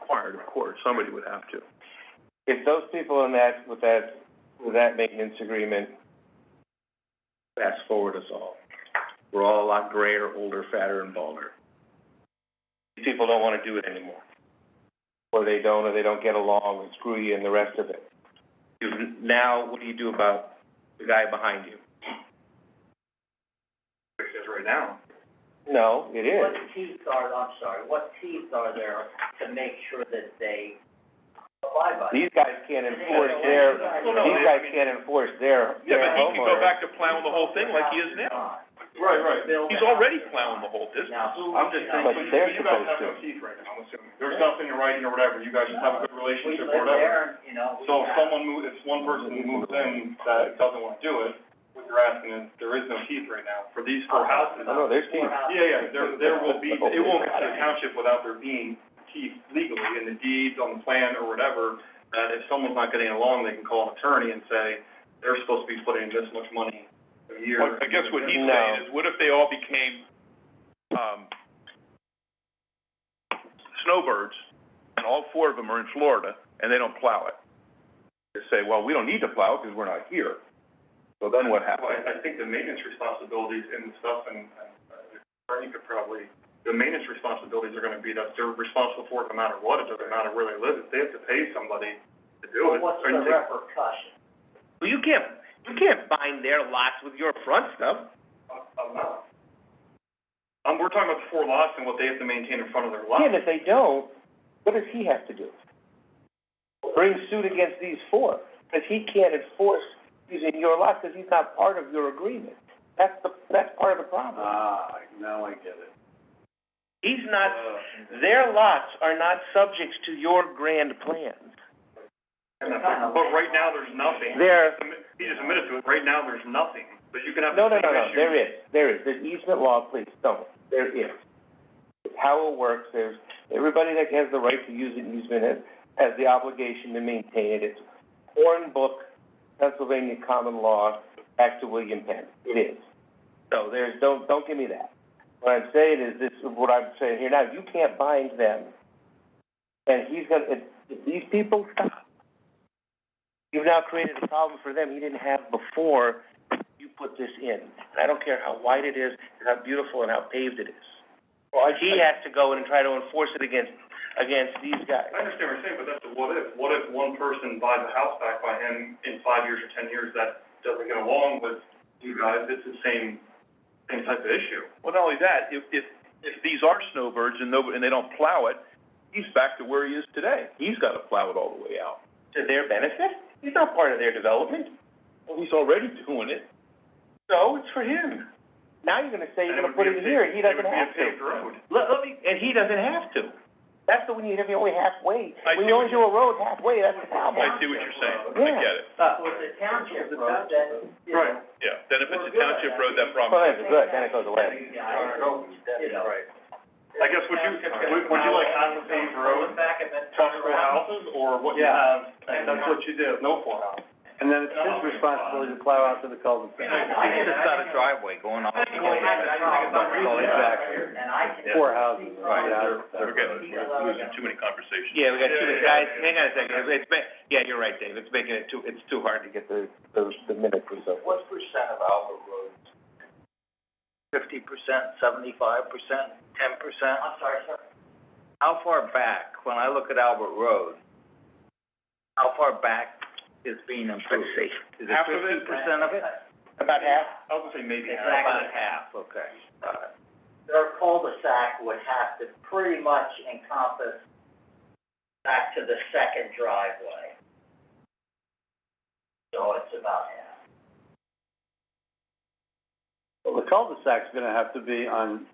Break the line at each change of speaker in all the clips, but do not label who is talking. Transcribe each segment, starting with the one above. required, of course, somebody would have to.
If those people in that, with that, with that maintenance agreement,
fast forward us all. We're all a lot grayer, older, fatter, and balder. These people don't wanna do it anymore.
or they don't, or they don't get along, and screw you and the rest of it.
You've, now, what do you do about the guy behind you?
right now.
No, it is.
What teeth are, I'm sorry, what teeth are there to make sure that they abide by?
These guys can't enforce their,
Well, no,
these guys can't enforce their,
Yeah,
their
but he can go
homeowner.
back to plowing the whole thing like he is now.
Right, right.
He's already plowing the whole distance.
Now, who?
I'm just saying,
But
so you,
they're
you guys have no
supposed
teeth right now, I'm assuming. There's nothing in writing or whatever, you guys just have a good
We
relationship
live
or whatever.
there, you know, we.
So if someone moves, if one person moves in that doesn't wanna do it, what you're asking is, there is no teeth right now for these four houses.
Oh, no, there's teeth.
Yeah, yeah, there, there will be, it won't get to the township without there being teeth legally in the deeds, on the plan, or whatever. That if someone's not getting along, they can call an attorney and say, they're supposed to be putting in this much money a year.
But I guess what he's
No.
saying is, what if they all became, um, snowbirds, and all four of them are in Florida, and they don't plow it? They say, well, we don't need to plow it because we're not here. So then what
Well,
happens?
I, I think the maintenance responsibilities and stuff, and, and, uh, Ernie could probably, the maintenance responsibilities are gonna be that they're responsible for it no matter what, it doesn't matter where they live, if they have to pay somebody to do it.
What's
or
the
you take-
repercussion?
Well, you can't, you can't bind their lots with your front stuff.
Um, we're talking about the four lots and what they have to maintain in front of their lot.
Yeah, and if they don't, what does he have to do? Bring suit against these four, because he can't enforce using your lot, because he's not part of your agreement. That's the, that's part of the problem.
Ah, now I get it. Uh.
He's not, their lots are not subjects to your grand plans.
But right now, there's nothing.
There,
He just admitted to it, right now, there's nothing, but you can have
no,
the
no, no,
same
no,
issue.
there is, there is, there's easement law, please, don't, there is. It's how it works, there's, everybody that has the right to use an easement has, has the obligation to maintain it. It's Hornbook, Pennsylvania common law, back to William Penn, it is. So there's, don't, don't give me that. What I'm saying is this, what I'm saying here now, you can't bind them. And he's gonna, if, if these people stop, you've now created a problem for them he didn't have before you put this in. And I don't care how wide it is, and how beautiful and how paved it is.
Well, I,
He has to go in and try to enforce it against, against these guys.
I understand what you're saying, but that's a what if. What if one person buys a house back by him in five years or ten years that doesn't get along with you guys? It's the same, same type of issue.
Well, not only that, if, if, if these are snowbirds and nobody, and they don't plow it, he's back to where he is today. He's gotta plow it all the way out.
To their benefit? He's not part of their development.
Well, he's already doing it.
So it's for him.
Now you're gonna say you're
And it
gonna put
would be
it in
a
here, and
paved-
he doesn't have
It would be a paved
to.
road.
Let, let me, and he doesn't have to.
That's the, when you, if you're only halfway,
I
when
see
you
what
only do a road halfway, that's the problem.
I see what you're saying. I
Yeah.
get it.
But with the township road, then, you know.
Right.
Yeah. Then if it's a
Well, good.
township road, that problem.
Well, that's good, then it goes away.
Yeah, I don't know, you know.
I guess would you, would would you like half a paved road,
Back and then turn
couple
around.
houses, or what you
Yeah.
have? And that's what you did. No four houses.
And then it's his responsibility to plow out to the cul-de-sac.
It's just not a
driveway going on.
And I can.
Four houses, right, out of-
We're getting, we're losing too many conversations.
Yeah, we got two,
Yeah,
guys,
yeah,
hang on a second, It's- it's, ma- yeah, you're right, Dave, it's making it too, it's too hard to get the,
The, the minute was over.
What percent of Albert roads? Fifty percent, seventy-five percent, ten percent? I'm sorry, sir. How far back, when I look at Albert Road, how far back is being improved? Is it
Half of
fifty
it?
percent of it?
About half?
I was gonna say maybe half.
About half, okay. Their cul-de-sac would have to pretty much encompass back to the second driveway. So it's about half.
Well, the cul-de-sac's gonna have to be on,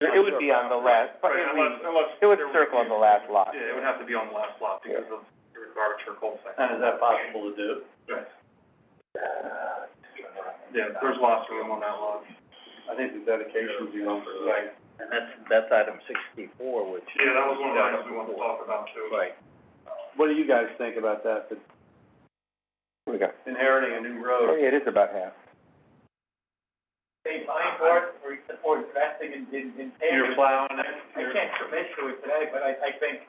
It would be on the last, but
Right,
it
unless,
would,
unless.
it would
there was-
circle on the last lot.
Yeah, it would have to be on the last lot because of the requirement for cul-de-sac.
and is that possible to do?
Yes. Yeah, there's lots of room on that lot.
I think the dedication's the one for the
And that's, that's item sixty-four, which.
Yeah, that was one of the items we wanted to talk about too.
Right.
What do you guys think about that, that
Here we go.
inheriting a new
Oh,
road?
yeah, it is about half.
They find for, for, for investing in, in, in.
You're plowing it.
I can't commit to it today, but I, I think